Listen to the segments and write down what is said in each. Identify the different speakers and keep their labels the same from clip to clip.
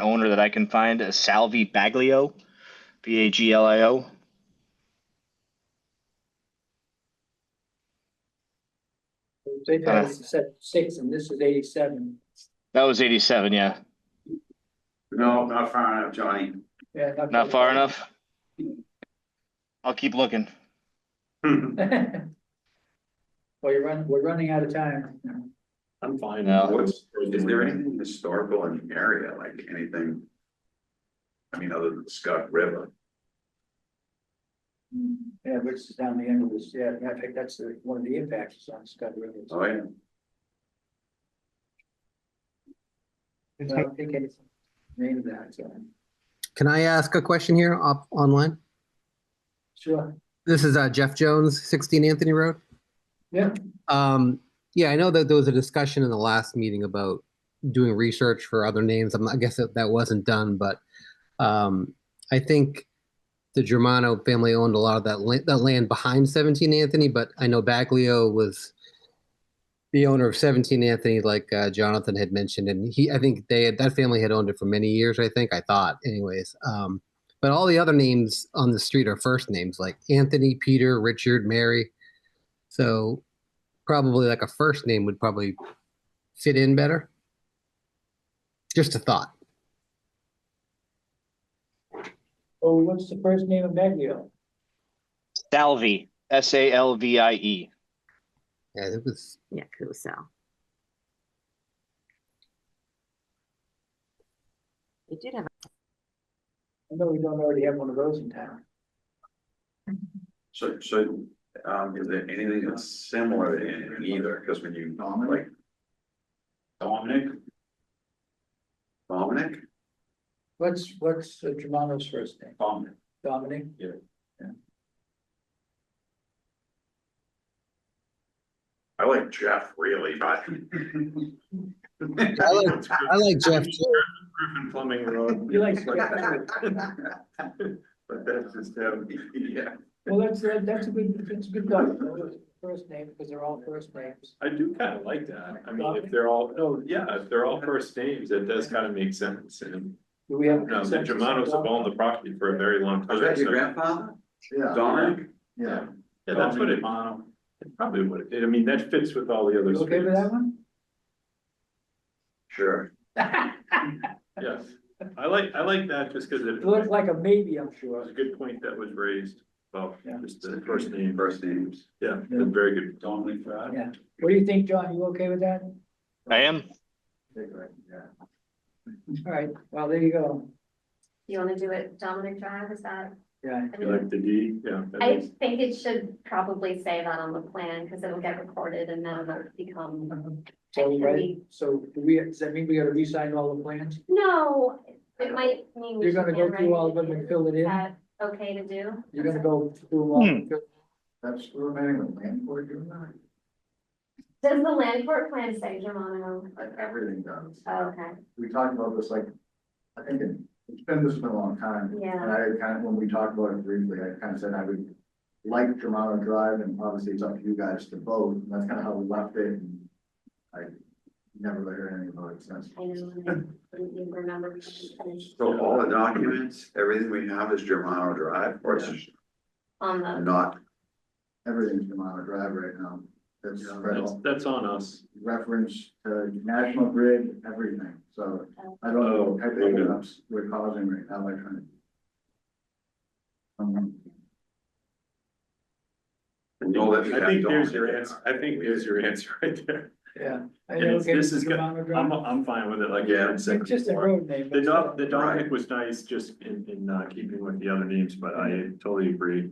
Speaker 1: owner that I can find, uh, Salvi Baglio, B A G L I O.
Speaker 2: They
Speaker 1: Uh.
Speaker 2: passed six and this is eighty-seven.
Speaker 1: That was eighty-seven, yeah.
Speaker 3: No, not far enough, Johnny.
Speaker 2: Yeah.
Speaker 1: Not far enough? I'll keep looking.
Speaker 3: I'm
Speaker 2: Well, you're running, we're running out of time.
Speaker 3: fine.
Speaker 1: No.
Speaker 3: What's, is there anything historical in the area, like anything? I mean, other than the Scott River,
Speaker 2: Yeah, which is down the end of this, yeah, I think that's the, one of the impacts is on Scott River.
Speaker 3: oh, yeah.
Speaker 2: I don't think it's named that, so,
Speaker 4: Can I ask a question here up online?
Speaker 2: sure,
Speaker 4: This is uh, Jeff Jones, 16 Anthony Road.
Speaker 2: yeah,
Speaker 4: Um, yeah, I know that there was a discussion in the last meeting about doing research for other names. I'm, I guess that, that wasn't done, but um, I think the Germano family owned a lot of that, la- that land behind 17 Anthony, but I know Baglio was the owner of 17 Anthony, like uh, Jonathan had mentioned, and he, I think they had, that family had owned it for many years. I think I thought, anyways. Um, but all the other names on the street are first names like Anthony, Peter, Richard, Mary. So probably like a first name would probably fit in better. Just a thought.
Speaker 2: oh, what's the first name of Baglio?
Speaker 1: Salvi, S A L V I E.
Speaker 4: Yeah, it was.
Speaker 5: Yeah, Kuso. They did have,
Speaker 2: I know we don't already have one of those in town.
Speaker 3: So, so, um, is there anything that's similar in either, cause when you, like. Dominic? Dominic?
Speaker 2: What's, what's uh, Germano's first name,
Speaker 3: Dominic.
Speaker 2: Dominic?
Speaker 3: I like Jeff really, but.
Speaker 4: I like- I like Jeff. too.
Speaker 3: Griffin Plumbing Road.
Speaker 2: You like-
Speaker 3: But that's just him, yeah.
Speaker 2: Well, that's, that- that's a good, that's a good thought, first name, because they're all first names.
Speaker 6: I do kind of like that. I mean, if they're all, no, yeah, if they're all first names, that does kind of make sense. And
Speaker 2: Do we have?
Speaker 6: no, the Germanos have owned the property for a very long time.
Speaker 3: Was that your
Speaker 6: so-
Speaker 3: grandfather? Yeah. Dominic?
Speaker 6: Yeah, Yeah, that's what it, it probably would, it- I mean, that fits with all the other
Speaker 2: You Okay with
Speaker 6: streets.
Speaker 2: that one?
Speaker 3: Sure.
Speaker 6: Yes, I like, I like that just because it
Speaker 2: It looks
Speaker 6: was
Speaker 2: like a maybe, I'm sure.
Speaker 6: a good point that was raised about
Speaker 2: Yeah.
Speaker 6: just the first name.
Speaker 3: First names.
Speaker 6: Yeah, that's very good. Dominic
Speaker 2: Yeah. What do you think, John? You okay with that?
Speaker 1: I am.
Speaker 2: All right, well, there you go.
Speaker 7: You wanna do it Dominic Drive, is that?
Speaker 2: Yeah,
Speaker 7: I
Speaker 6: You
Speaker 7: mean,
Speaker 6: like the D, yeah. that
Speaker 7: I
Speaker 6: makes-
Speaker 7: think it should probably say that on the plan, cause it'll get recorded and then it'll become.
Speaker 2: so, right, so do we, does that mean we gotta re-sign all the plans?
Speaker 7: No, it might mean. we
Speaker 2: You're gonna
Speaker 7: should
Speaker 2: go through all of them
Speaker 7: handwrite
Speaker 2: and
Speaker 7: it.
Speaker 2: fill it
Speaker 7: Is
Speaker 2: in?
Speaker 7: that okay to do?
Speaker 2: You're gonna go through all?
Speaker 1: Hmm.
Speaker 2: That's remaining with land board, you're not.
Speaker 7: Does the land court plan say Germano?
Speaker 3: Everything does.
Speaker 7: Oh, Okay,
Speaker 3: We talked about this like, I think it's been this been a long time. And
Speaker 7: yeah,
Speaker 3: I kind of, when we talked about it briefly, I kind of said I would like Germano Drive and obviously it's up to you guys to vote. And that's kind of how we left it. and I never heard anything about it since.
Speaker 7: I know, and I didn't remember.
Speaker 3: So all the documents, everything we have is Germano Drive or it's
Speaker 7: On the,
Speaker 3: not? Everything's Germano Drive right now. That's
Speaker 6: Yeah,
Speaker 3: spread
Speaker 6: That's,
Speaker 3: all-
Speaker 6: that's on us.
Speaker 3: reference to National Grid, everything. So I don't know what type of hiccups we're causing right now by trying to. Um, No, that's-
Speaker 6: I think there's your answer, I think there's your answer right there.
Speaker 2: Yeah. I
Speaker 6: And
Speaker 2: know,
Speaker 6: it's-
Speaker 2: okay,
Speaker 6: Hmm. this is
Speaker 2: Mr.
Speaker 6: good.
Speaker 2: Romano Drive.
Speaker 6: I'm, I'm fine with it, like.
Speaker 3: Yeah.
Speaker 6: it's
Speaker 2: It's just a
Speaker 6: before.
Speaker 2: road name.
Speaker 6: The Dom, the
Speaker 3: Right.
Speaker 6: Dominic was nice just in, in uh, keeping with the other names, but I totally agree.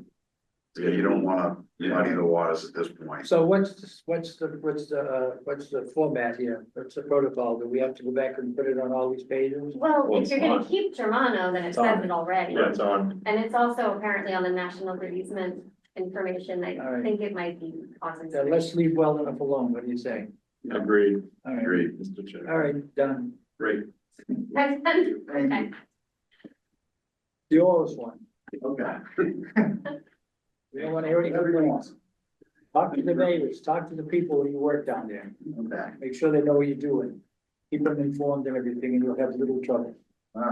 Speaker 3: Yeah, you don't wanna muddy the waters at this point.
Speaker 2: So what's, this- what's the, what's the, uh, what's the format here? What's the protocol? Do we have to go back and put it on all these pages?
Speaker 7: well,
Speaker 6: Well,
Speaker 7: if you're
Speaker 6: it's
Speaker 7: gonna
Speaker 6: on.
Speaker 7: keep Germano, then it
Speaker 6: It's on.
Speaker 7: says it already.
Speaker 6: Yeah, it's on.
Speaker 7: And it's also apparently on the national bereavement information,
Speaker 2: All
Speaker 7: I
Speaker 2: right.
Speaker 7: think it might be awesome.
Speaker 2: Yeah, Uh, let's leave well enough alone. What do you say?
Speaker 6: Agreed,
Speaker 2: All right,
Speaker 6: agreed, Mr. Chair.
Speaker 2: all right, done.
Speaker 6: Great.
Speaker 7: Okay.
Speaker 2: The oldest one.
Speaker 3: Okay.
Speaker 2: We don't want to hear any complaints. Talk to the neighbors, talk to the people who you work down there.
Speaker 3: I'm back.
Speaker 2: Make sure they know what you're doing. Keep them informed of everything and you'll have little trouble.